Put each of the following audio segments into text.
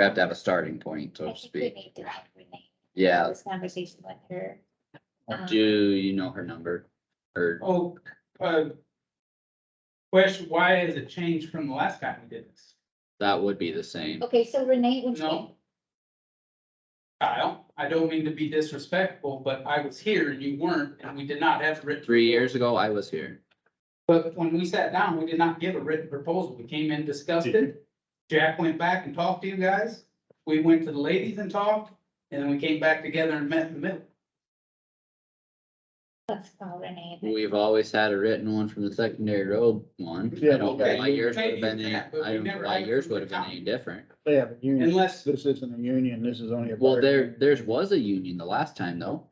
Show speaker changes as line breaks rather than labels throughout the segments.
We have to have a starting point, so
I
to
think we
speak.
need to have Renee, have
Yeah,
this conversation with her. Um,
do you know her number? Or,
Oh, uh. Question, why has it changed from the last time we did this?
that would be the same.
Okay, so Renee, would you,
No. Kyle, I don't mean to be disrespectful, but I was here and you weren't, and we did not have written.
Three years ago, I was here.
But when we sat down, we did not give a written proposal. We came in, discussed it. Jack went back and talked to you guys. We went to the ladies and talked, and then we came back together and met in the middle.
let's call Renee. then.
We've always had a written one from the secondary road one. I
Yeah,
don't know
okay.
why yours would have
Maybe
been, any- I
that, but we
don't know
never
why
had it
yours
from
would
the
have been
top.
any different.
They have a union.
Unless,
This isn't a union. This is only a.
Well,
bar
there,
union.
theirs was a union the last time though.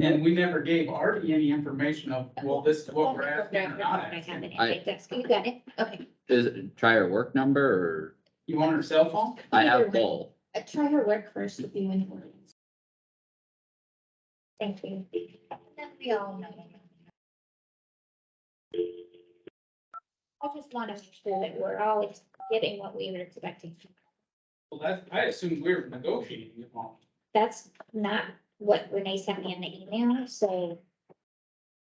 and we never gave Artie any information of, well, this is what we're asking or not
Oh, I have
asking.
it at my desk. You got it, okay.
Is, it- try her work number
You want her cell
or,
phone?
I
Either
have
way.
both.
Uh, Try her work first with you and. Maureen's. Thank you. Then we all know. I just want to make sure that we're all getting what we were expecting.
Well, that's, I assumed we were negotiating it all.
That's not what Renee sent me in the email, so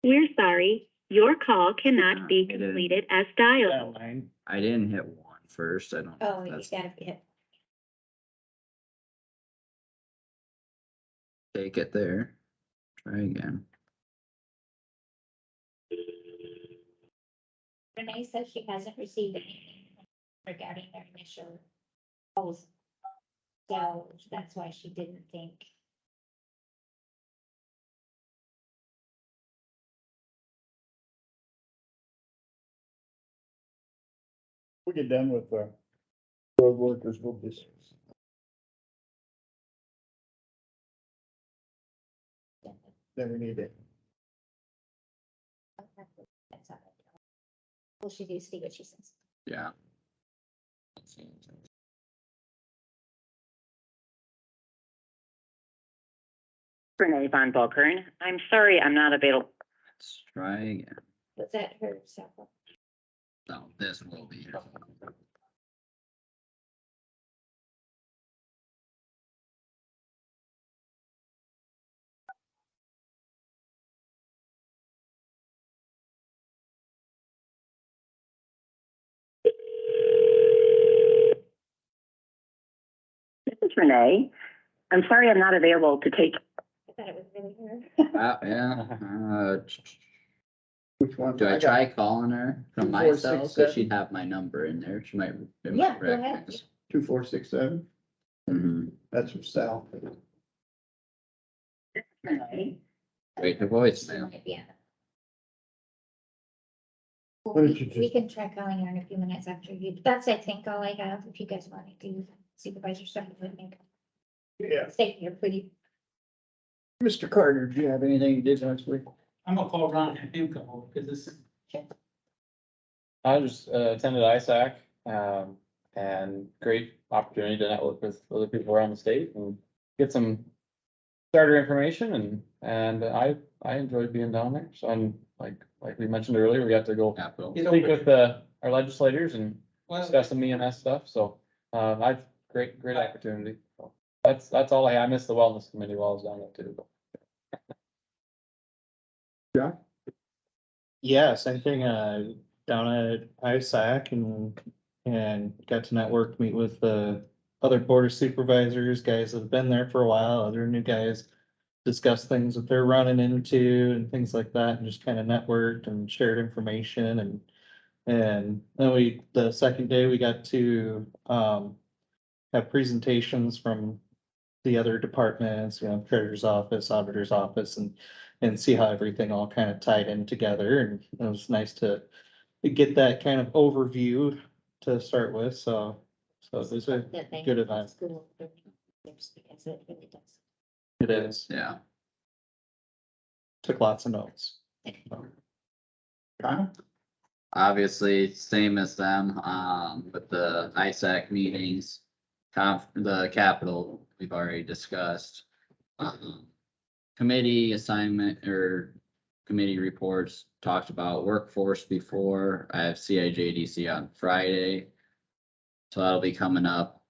We're sorry, your call cannot be
Yeah, it is.
completed as dialed.
That line.
I didn't hit one first. I don't. know
Oh,
if
you
that's-
gotta hit.
Take it there. Try again.
Renee says she hasn't received anything regarding their initial proposal. So that's why she didn't think.
We get done with the road workers, we'll just. Then we need it.
that's all. Well, she do see what she says.
Yeah.
Renee Von Volkern. I'm sorry, I'm not available.
Let's try again.
Was that her cell phone?
No, this will be. it.
This is Renee. I'm sorry, I'm not available to take.
I thought it was really her.
Uh, yeah, uh, ch- ch-
Which one?
do I
got
try calling her from
Two, four, six,
myself? So
seven.
she'd have my number in there. She might. it
Yeah,
might
go ahead.
recognize.
Two, four, six, seven.
Mhm.
That's from Sal.
Renee.
Wait, the
She
voicemail.
might be on it.
Why
Well,
don't you
We we
just-
can try calling her in a few minutes after you. That's, I think, all I have. If you guys want to do supervisor stuff with me,
Yeah.
stay here, please.
Mr. Carter, do you have anything you did last week?
I'm gonna call Ron and him come over, cause this,
I just uh, attended ISAC, um, and great opportunity to network with other people around the state and get some starter information and, and I, I enjoyed being down there. So I'm, like, like we mentioned earlier, we got to go
Capital.
Get
speak
over
with uh our legislators and
well,
Uh,
discuss some EMS stuff. So, uh, I, great, great opportunity. So That's, that's all I, I missed the wellness committee while I was down there too.
Yeah, same thing, uh, down at ISAC and, and got to network, meet with the other border supervisors, guys that have been there for a while, other new guys. Discuss things that they're running into and things like that, and just kind of networked and shared information and. And then we, the second day, we got to, um, have presentations from the other departments, you know, treasurer's office, auditor's office, and and see how everything all kind of tied in together. And it was nice to get that kind of overview to start with. So, so it was a,
That thing
Good advice.
School for years Because it really does.
it is,
Yeah.
took lots of notes.
Kyle?
Obviously, same as them, um, with the ISAC meetings, conf, the capital, we've already discussed. Um, Committee assignment or committee reports, talked about workforce before, I have CIJDC on Friday. So that'll be coming up.